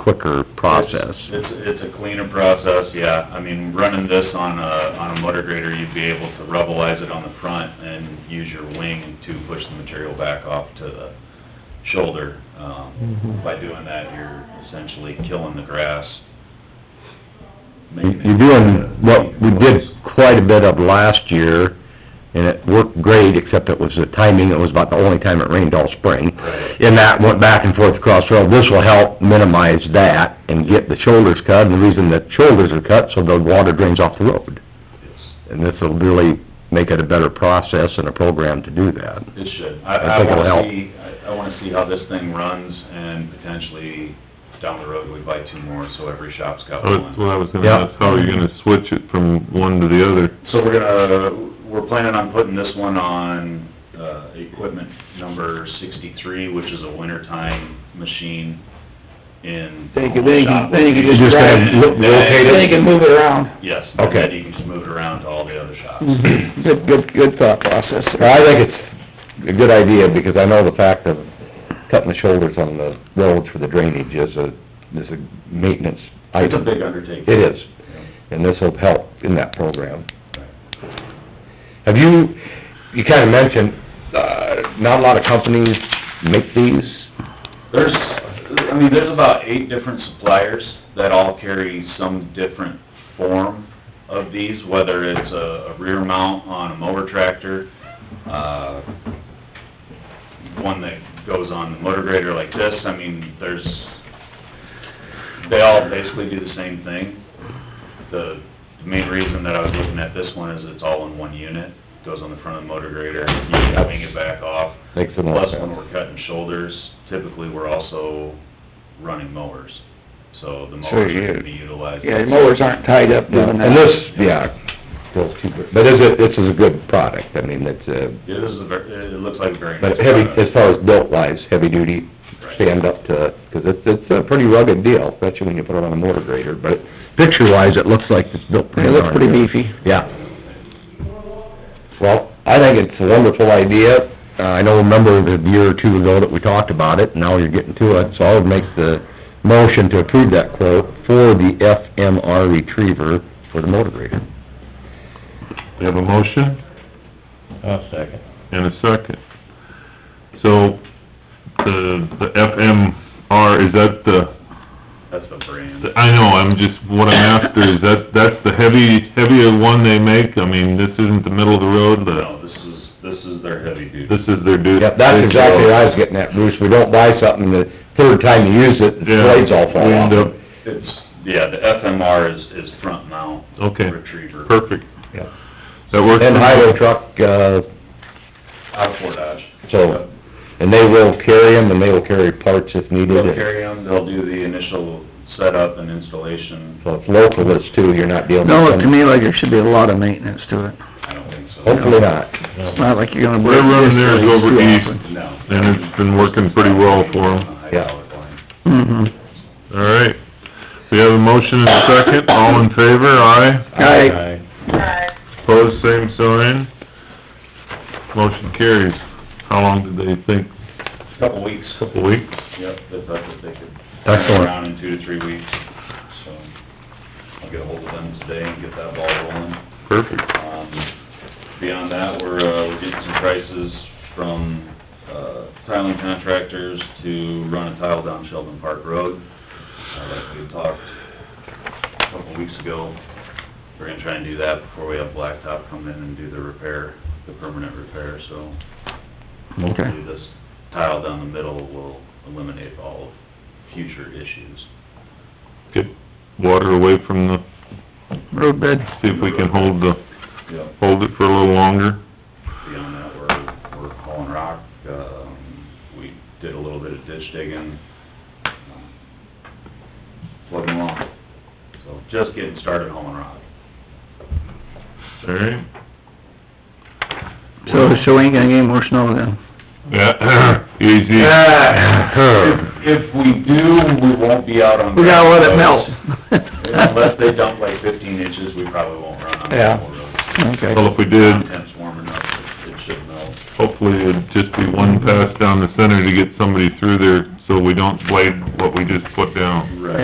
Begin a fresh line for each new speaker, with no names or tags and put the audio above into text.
quicker process.
It's, it's a cleaner process, yeah. I mean, running this on a, on a motor grader, you'd be able to rubbleize it on the front and use your wing to push the material back off to the shoulder. Um,
Mhm.
By doing that, you're essentially killing the grass. Making it-
You're doing what we did quite a bit of last year, and it worked great, except it was the timing, it was about the only time it rained all spring.
Right.
And that went back and forth across the road. This will help minimize that and get the shoulders cut, and the reason the shoulders are cut, so the water drains off the road.
It's-
And this will really make it a better process and a program to do that.
It should. I,
I
I
think it'll help.
wanna see, I- I wanna see how this thing runs and potentially down the road, we buy two more, so every shop's got one.
That's what I was gonna
Yeah.
ask, how are you gonna switch it from one to the other?
So we're gonna, we're planning on putting this one on, uh, equipment number sixty-three, which is a wintertime machine in.
Think of it,
shop
think of it,
location.
just
gotta lo- locate
They can move it around.
Yes.
Okay.
And then you can just move it around to all the other shops.
Mm. Mm-hmm. Good, good, good thought process.
Well, I think it's a good idea, because I know the fact of cutting the shoulders on the roads for the drainage is a, is a maintenance
It's a
item.
big undertaking.
It is, and this'll help in that program. Have you, you kinda mentioned, uh, not a lot of companies make these,
There's, I mean, there's about eight different suppliers that all carry some different form of these, whether it's a a rear mount on a mower tractor, uh, one that goes on the motor grader like this, I mean, there's, they all basically do the same thing. The main reason that I was looking at this one is it's all in one unit, goes on the front of the motor grader, you can wing it back off.
makes them
Plus,
less...
when we're cutting shoulders, typically, we're also running mowers, so the
Sure,
mowers
yeah.
are gonna be utilized.
Yeah, mowers aren't tied up doing that.
And this, yeah, goes cheaper, but is it, this is a good product, I mean, it's a,
It is a ver, it looks like a very nice
but heavy,
product.
as far as built wise, heavy duty,
Right.
stand up to, 'cause it's, it's a pretty rugged deal, especially when you put it on a motor grader, but picture-wise, it looks like it's built pretty
It looks
darn
pretty
good.
beefy.
Yeah. Well, I think it's a wonderful idea. Uh, I don't remember a year or two ago that we talked about it, now you're getting to it, so I would make the motion to approve that quote for the FMR retriever for the motor grader.
We have a motion
I'll second.
and a second. So, the, the FMR, is that the,
That's the brand.
I know, I'm just, what I'm after is that, that's the heavy, heavier one they make? I mean, this isn't the middle of the road, the,
No, this is, this is their heavy duty.
this is their duty.
Yep, that's exactly what I was getting at, Bruce. We don't buy something, the third time you use it, the
Yeah.
blades all fall
We end
off.
up-
It's, yeah, the FMR is, is front mount
Okay.
retriever
Perfect.
Yep.
That works.
And highway truck, uh,
out of Fort Dodge.
so, and they will carry them, and they will carry parts if needed.
They'll carry them, they'll do the initial setup and installation,
So it's local, it's too, you're not dealing
Don't
with
look to
them.
me like there should be a lot of maintenance to it.
I don't think so.
Hopefully not.
It's not like you're gonna.
They're running theirs over east,
No.
and it's been working pretty well for them.
Hydraulic line.
Mm-hmm.
All right, we have a motion and a second, all in favor, aye?
Aye.
Pose same sign. Motion carries. How long did they think?
Couple weeks.
Couple weeks?
Yep, they thought that they could turn it
Excellent.
around in two to three weeks, so I'll get ahold of them today and get that ball rolling.
Perfect.
Um, beyond that, we're, uh, we're getting some prices from, uh, tiling contractors to run a tile down Sheldon Park Road. Uh, like we talked a couple weeks ago, we're gonna try and do that before we have Blacktop come in and do the repair, the permanent repair, so
Mm-hmm. Okay.
hopefully this tile down the middle will eliminate all future issues.
Get water away from the,
Road bed.
see if we can hold the,
Yep.
hold it for a little longer.
Beyond that, we're, we're hauling rock, um, we did a little bit of ditch digging, um, plugging along. So just getting started hauling rock.
All right?
So, so we ain't gonna get any more snow then.
Yeah, easy.
If we do, we won't be out on.
We gotta let it melt.
Unless they dump like fifteen inches, we probably won't run on the
Yeah.
road.
Okay.
Well, if we did,
Content's warm enough, it it should melt.
hopefully it'd just be one pass down the center to get somebody through there so we don't blade what we just put down.
Right.